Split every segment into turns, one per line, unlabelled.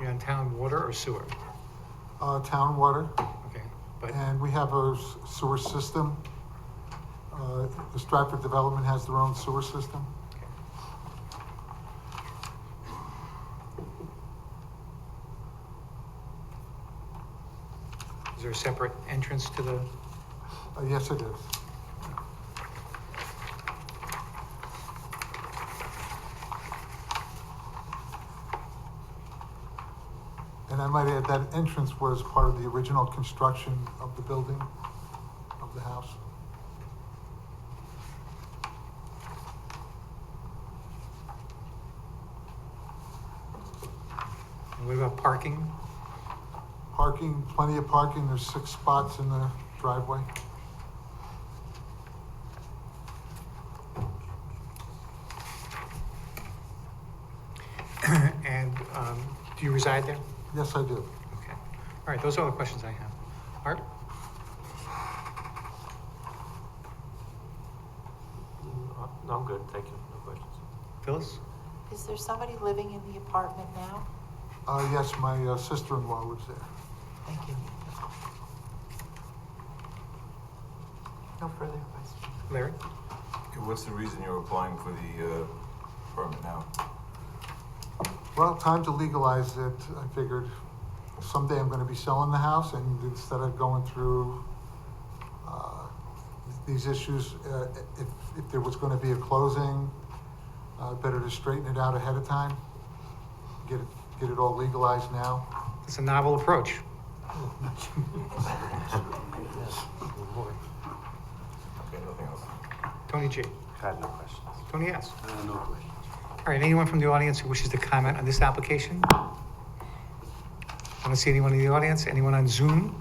You're on town water or sewer?
uh, town water,
Okay, but,
and we have a s- sewer system. Uh, The Stratford Development has their own sewer system.
okay. Is there a separate entrance to the,
Uh, Yes, it is. And I might add, that entrance was part of the original construction of the building, of the house.
and what about parking?
Parking, plenty of parking, there's six spots in the driveway.
And, um, do you reside there?
Yes, I do.
Okay. All right, those are all the questions I have. Art?
Mm, No, I'm good, thank you, no questions.
Phyllis?
Is there somebody living in the apartment now?
Uh, Yes, my uh, sister-in-law lives there.
Thank you. No further questions.
Larry?
Okay, What's the reason you're applying for the uh, permit now?
Well, time to legalize it. I figured someday I'm gonna be selling the house and instead of going through, uh, these issues, uh, if, if there was gonna be a closing, uh, better to straighten it out ahead of time. Get it, get it all legalized now.
It's a novel approach.
Okay, nothing else.
Tony G.
Had no questions.
Tony S.
Uh, No questions.
All right, anyone from the audience who wishes to comment on this application? I don't see anyone in the audience. Anyone on Zoom?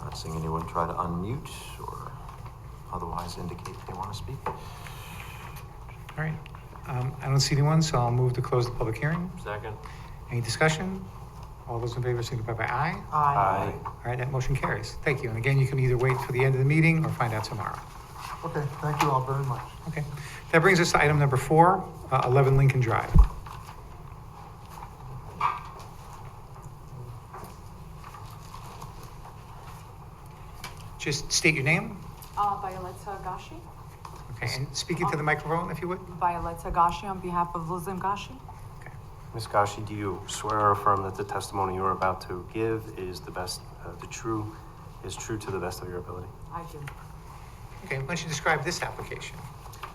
Not seeing anyone try to unmute or otherwise indicate they want to speak.
All right. Um, I don't see anyone, so I'll move to close the public hearing.
Second?
Any discussion? All those in favor signify by aye.
Aye.
All right, that motion carries. Thank you. And again, you can either wait for the end of the meeting or find out tomorrow.
Okay, thank you all very much.
Okay. That brings us to item number four, uh, 11 Lincoln Drive. Just state your name.
Uh, Violetta Gashi.
Okay, and speak into the microphone if you would.
Violetta Gashi on behalf of Luzim Gashi.
Okay.
Ms. Gashi, do you swear or affirm that the testimony you are about to give is the best, uh, the true, is true to the best of your ability?
I do.
Okay, why don't you describe this application?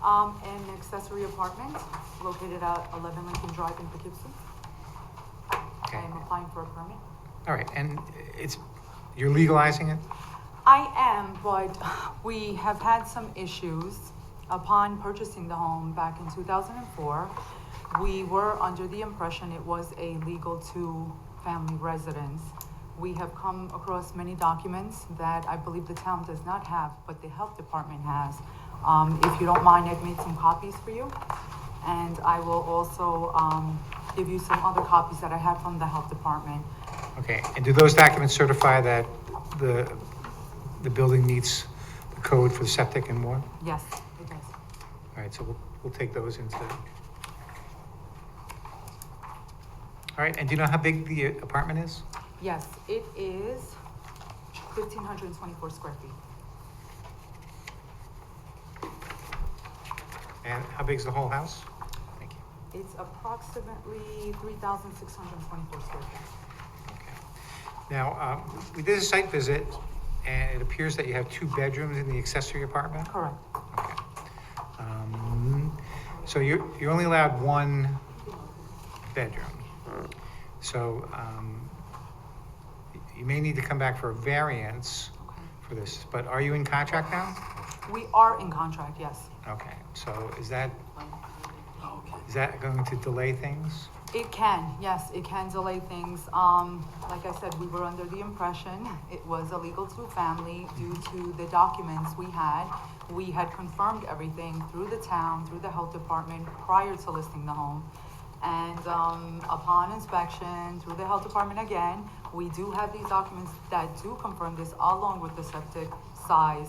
Um, an accessory apartment located at 11 Lincoln Drive in Poughkeepsie. I
Okay.
am applying for a permit.
All right, and it's, you're legalizing it?
I am, but we have had some issues. Upon purchasing the home back in 2004, we were under the impression it was a legal two-family residence. We have come across many documents that I believe the town does not have, but the health department has. Um, If you don't mind, I've made some copies for you, and I will also um, give you some other copies that I have from the health department.
Okay, and do those documents certify that the, the building meets the code for septic and water?
Yes, it does.
All right, so we'll, we'll take those into. All right, and do you know how big the apartment is?
Yes, it is fifteen hundred and twenty-four square feet.
And how big is the whole house? Thank you.
It's approximately three thousand six hundred and twenty-four square feet.
Okay. Now, um, we did a site visit, and it appears that you have two bedrooms in the accessory apartment?
Correct.
Okay. Um, So you're, you're only allowed one bedroom. So um, y- you may need to come back for a variance for this, but are you in contract now?
We are in contract, yes.
Okay, so is that,
Okay.
is that going to delay things?
It can, yes, it can delay things. Um, like I said, we were under the impression it was illegal to family due to the documents we had. We had confirmed everything through the town, through the health department prior to listing the home. And, um, upon inspection through the health department again, we do have these documents that do confirm this along with the septic size